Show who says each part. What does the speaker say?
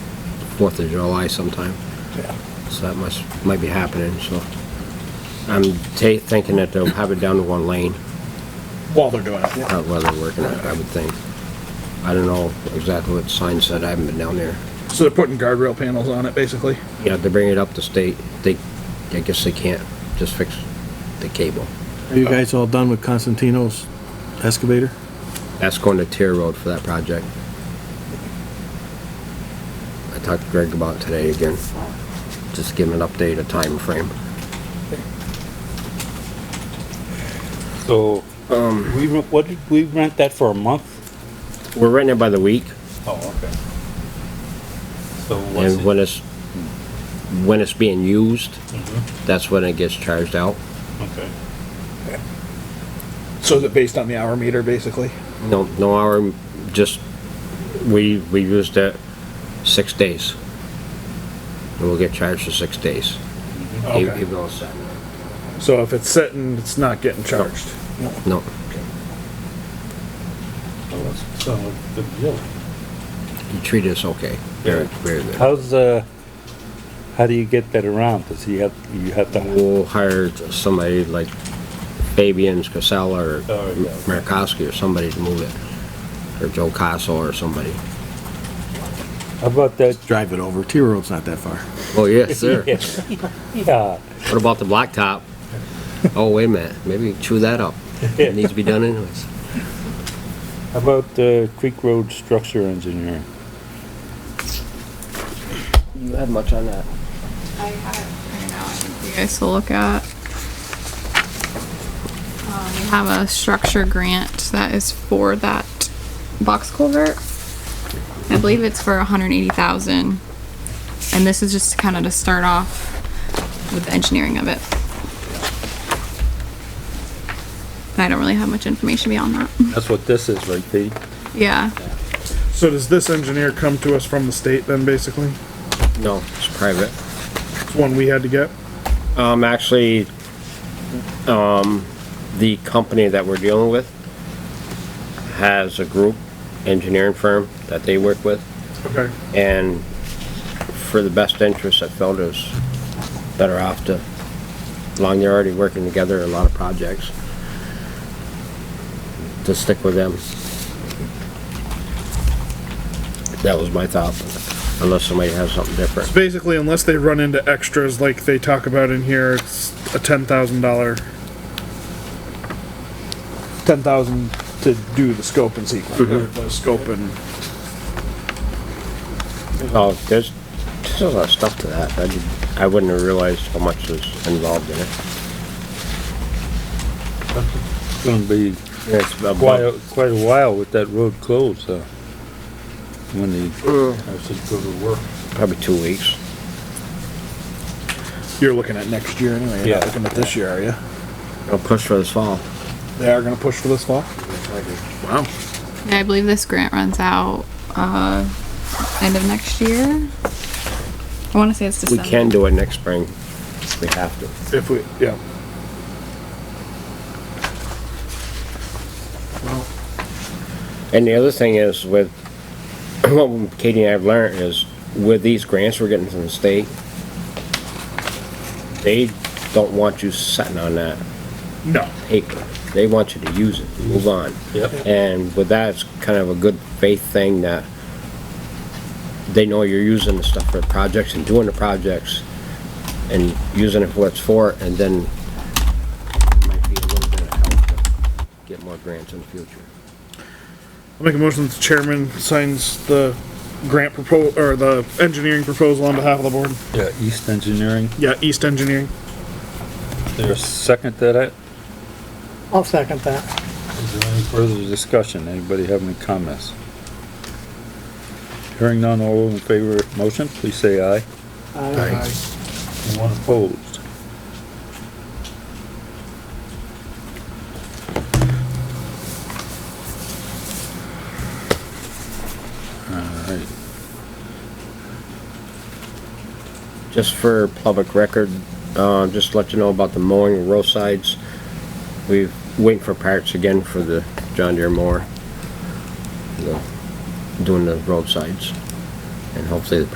Speaker 1: Fourth of July sometime,
Speaker 2: Yeah.
Speaker 1: so that must, might be happening, so. I'm ta- thinking that they'll have it down to one lane,
Speaker 2: While they're doing it.
Speaker 1: uh, while they're working on it, I would think. I don't know exactly what the sign said, I haven't been down there.
Speaker 2: So they're putting guardrail panels on it, basically.
Speaker 1: Yeah, they bring it up to state, they, I guess they can't just fix the cable.
Speaker 3: Are you guys all done with Constantino's excavator?
Speaker 1: That's going to Tier Road for that project. I talked to Greg about it today again. Just give him an update, a time frame.
Speaker 4: So, we, re- what did, we rent that for a month?
Speaker 1: We're renting it by the week,
Speaker 4: Oh, okay. So what's
Speaker 1: and
Speaker 4: it? Mhm,
Speaker 1: when it's, when it's being used, that's when it gets charged out.
Speaker 4: Okay.
Speaker 2: So is it based on the hour meter, basically?
Speaker 1: No, no hour, just, we, we used it six days. And we'll get charged for six days.
Speaker 4: Mm-hmm.
Speaker 1: Even-
Speaker 2: Okay.
Speaker 1: even though it's Saturday.
Speaker 2: So if it's sitting, it's not getting charged.
Speaker 1: No,
Speaker 4: So it's- So, good deal.
Speaker 1: he treated us okay. Very, very good.
Speaker 4: How's, uh, how do you get that around? Does he have, you have to,
Speaker 1: We'll hire somebody like Fabian's Casella or
Speaker 4: Oh, yeah.
Speaker 1: Merkowski or somebody to move it. Or Joe Castle or somebody.
Speaker 4: how about that?
Speaker 3: Drive it over. Tier Road's not that far.
Speaker 1: Oh, yes, sir.
Speaker 4: Yeah,
Speaker 1: What about the blacktop? Oh, wait a minute, maybe chew that up. It needs to be done anyways.
Speaker 4: how about, uh, Creek Road Structure Engineering?
Speaker 1: You had much on that?
Speaker 5: I have it printed out for you guys to look at. Um, we have a structure grant that is for that box culvert. I believe it's for 180,000. And this is just kind of to start off with the engineering of it. I don't really have much information beyond that.
Speaker 4: That's what this is, right, Pete?
Speaker 5: Yeah.
Speaker 2: So does this engineer come to us from the state then, basically?
Speaker 1: No, it's private.
Speaker 2: It's one we had to get?
Speaker 1: Um, actually, um, the company that we're dealing with has a group engineering firm that they work with.
Speaker 2: Okay.
Speaker 1: And for the best interest, I felt it was better off to, long they're already working together on a lot of projects, to stick with them. That was my thought, unless somebody has something different.
Speaker 2: Basically, unless they run into extras like they talk about in here, it's a ten thousand dollar. Ten thousand to do the scope and sequence, the scope and.
Speaker 1: Oh, there's, there's a lot of stuff to that. I did- I wouldn't have realized how much was involved in it.
Speaker 4: It's gonna be
Speaker 1: It's about-
Speaker 4: quite, a- quite a while with that road closed, so. When they actually go to work.
Speaker 1: Probably two weeks.
Speaker 2: You're looking at next year anyway, you're not
Speaker 4: Yeah.
Speaker 2: looking at this year, are you?
Speaker 1: I'll push for this fall.
Speaker 2: They are gonna push for this fall? Wow.
Speaker 5: Yeah, I believe this grant runs out uh, end of next year. I want to say it's
Speaker 1: We
Speaker 5: December.
Speaker 1: can do it next spring. We have to.
Speaker 2: If we, yeah.
Speaker 1: And the other thing is with, what Katie and I have learned is with these grants we're getting from the state, they don't want you sitting on that
Speaker 2: No.
Speaker 1: paper. They want you to use it, move on.
Speaker 4: Yep.
Speaker 1: And with that, it's kind of a good faith thing that they know you're using the stuff for the projects and doing the projects and using it for what it's for, and then it might be a little bit of help to get more grants in the future.
Speaker 2: I'll make a motion that the chairman signs the grant proposal, or the engineering proposal on behalf of the board.
Speaker 4: Yeah, East Engineering.
Speaker 2: Yeah, East Engineering.
Speaker 4: There's second to that?
Speaker 6: I'll second that.
Speaker 4: Is there any further discussion? Anybody have any comments? Hearing none, all in favor of motion, please say aye.
Speaker 6: Aye.
Speaker 4: Anyone opposed? Alright,
Speaker 1: Just for public record, uh, just to let you know about the mowing of roadsides. We've waiting for parts again for the John Deere mower. The- Doing the roadsides. And hopefully the